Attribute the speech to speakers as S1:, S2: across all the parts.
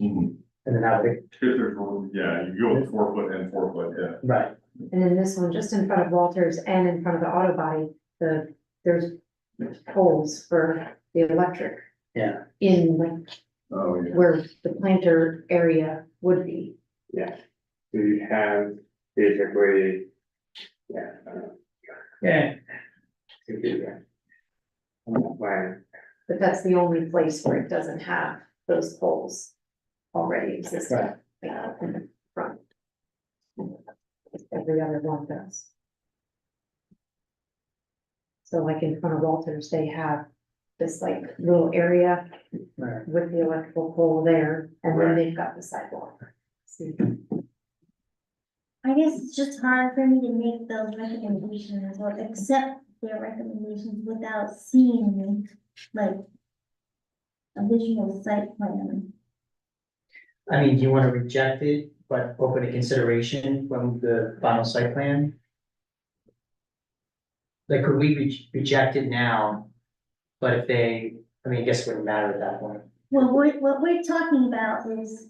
S1: Mhm.
S2: and then I would,
S1: If there's room, yeah, you go with four foot and four foot, yeah.
S2: right,
S3: And then this one, just in front of Walters and in front of the auto body, the, there's poles for the electric
S2: yeah,
S3: in like
S1: Oh, yeah.
S3: where the planter area would be.
S4: Yeah, we have basically, yeah, I don't know,
S2: yeah,
S4: to do that. On that plan,
S3: But that's the only place where it doesn't have those poles already existing.
S2: Right.
S3: uh, in the front. Every other one does. So like in front of Walters, they have this like little area
S2: right.
S3: with the electrical pole there, and then they've got the sidewalk. See,
S5: I guess it's just hard for me to make those recommendations or accept their recommendations without seeing like a visual site plan.
S2: I mean, do you wanna reject it, but open to consideration from the final site plan? Like, could we re- reject it now? But if they, I mean, I guess it wouldn't matter at that point.
S5: What we're, what we're talking about is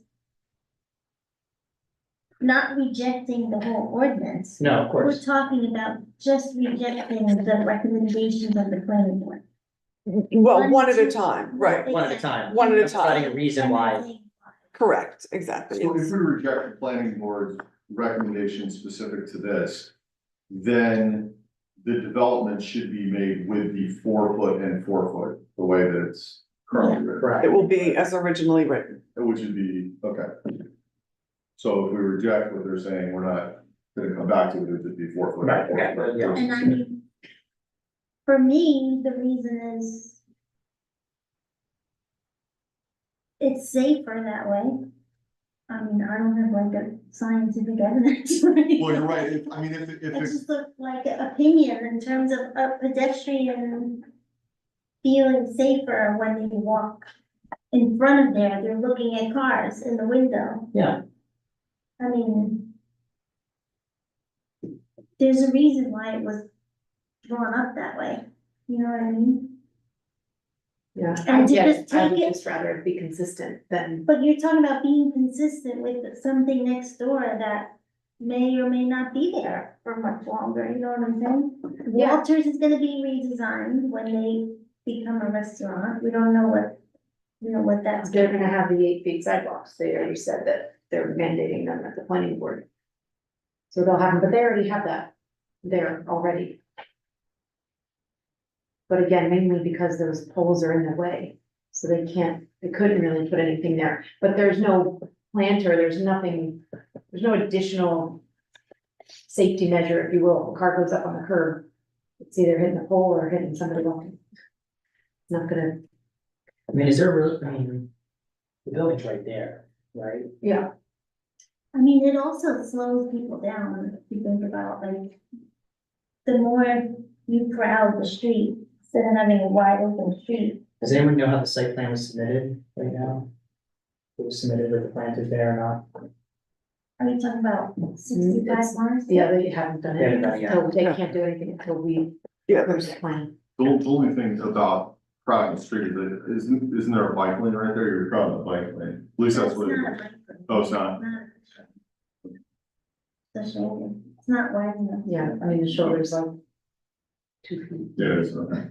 S5: not rejecting the whole ordinance.
S2: No, of
S5: We're
S2: course,
S5: talking about just rejecting the recommendations of the planning board.
S6: Well, one at
S5: two-
S6: a time, right,
S2: one at a time.
S6: One at a
S2: I'm Providing a reason why,
S5: Everything.
S6: correct, exactly.
S1: So if
S6: It's-
S1: we reject the planning board's recommendation specific to this, then the development should be made with the four foot and four foot, the way that it's currently written,
S2: right,
S6: It will be as originally written,
S1: which would be, okay. So if we reject what they're saying, we're not gonna come back to it, it'd be four foot.
S2: Right,
S1: and four
S2: okay,
S1: foot.
S2: yeah.
S5: And I mean, for me, the reason is it's safer that way. I mean, I don't have like a scientific evidence. Well,
S1: Well, you're right, if, I mean, if, if,
S5: It's
S1: it's-
S5: just a- like an opinion in terms of a pedestrian feeling safer when they walk in front of there, they're looking at cars in the window.
S2: yeah,
S5: I mean. There's a reason why it was drawn up that way, you know what I mean?
S3: yeah, I
S5: And to
S3: guess
S5: just
S3: I would
S5: take it-
S3: just rather it be consistent than,
S5: But you're talking about being consistent with something next door that may or may not be there for much longer, you know what I'm saying?
S3: Yeah.
S5: Walters is gonna be redesigned when they become a restaurant, we don't know what, you know, what that's.
S3: they're gonna have the eight feet sidewalks, they already said that they're mandating them at the planning board. So they'll have, them, but they already have that there already. But again, mainly because those poles are in the way, so they can't, they couldn't really put anything there, but there's no planter, there's nothing, there's no additional safety measure, if you will, if a car goes up on the curb, it's either hitting a pole or hitting somebody walking. It's not gonna,
S2: I mean, is there, really- I mean, the building's right there, right?
S3: yeah,
S5: I mean, it also slows people down, if you think about like. The more you crowd the street, instead of having a wide open street,
S2: Does anyone know how the site plan was submitted right now? It was submitted with the planters there or
S5: are you talking about sixty-five
S3: it's-
S5: cars?
S3: yeah, they haven't done
S2: They haven't
S3: it,
S2: done it yet.
S3: so they can't do anything until we
S6: yeah,
S3: approve the plan.
S1: the the only thing about Crown Street, is that isn't, isn't there a bike lane right there, you're crossing a bike lane, at least that's
S5: It's
S1: what. it is.
S5: not like-
S1: Oh, it's not,
S5: not- The shoulder, it's not wide enough.
S3: Yeah, I mean, the shoulders are two feet.
S1: yeah, it's, okay.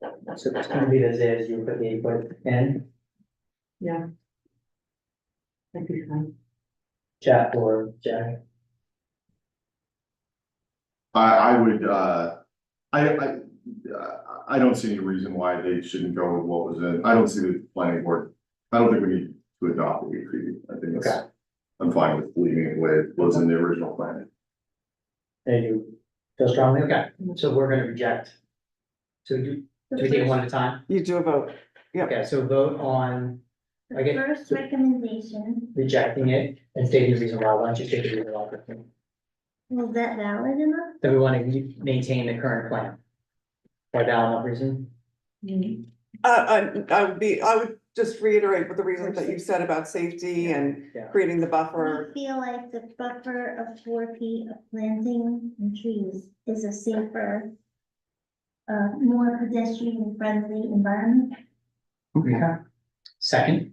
S2: not? So it's gonna be as is, you put the eight foot in,
S3: Yeah. That'd be fine.
S2: Jack or Jack,
S1: I, I would, uh, I, I, uh, I don't see any reason why they shouldn't go with what was in, I don't see the planning board. I don't think we need to adopt the agreement, I think it's,
S2: Okay.
S1: I'm fine with leaving it the way it was in the original plan.
S2: there you feel strongly, okay, so we're gonna reject. So do, do we take it one at a time?
S6: you do a vote, Yep.
S2: Okay, so vote on
S5: The
S2: Okay.
S5: first recommendation,
S2: rejecting it and stating the reason why, why don't you state the reason why?
S5: was that valid enough?
S2: That we wanna re- maintain the current plan. By valid enough reason,
S6: uh, I, I would be, I would just reiterate what the reasons that you said about safety and
S2: yeah,
S6: creating the buffer.
S5: I feel like the buffer of four feet of planting and trees is a safer, uh, more pedestrian friendly environment.
S2: okay. Second?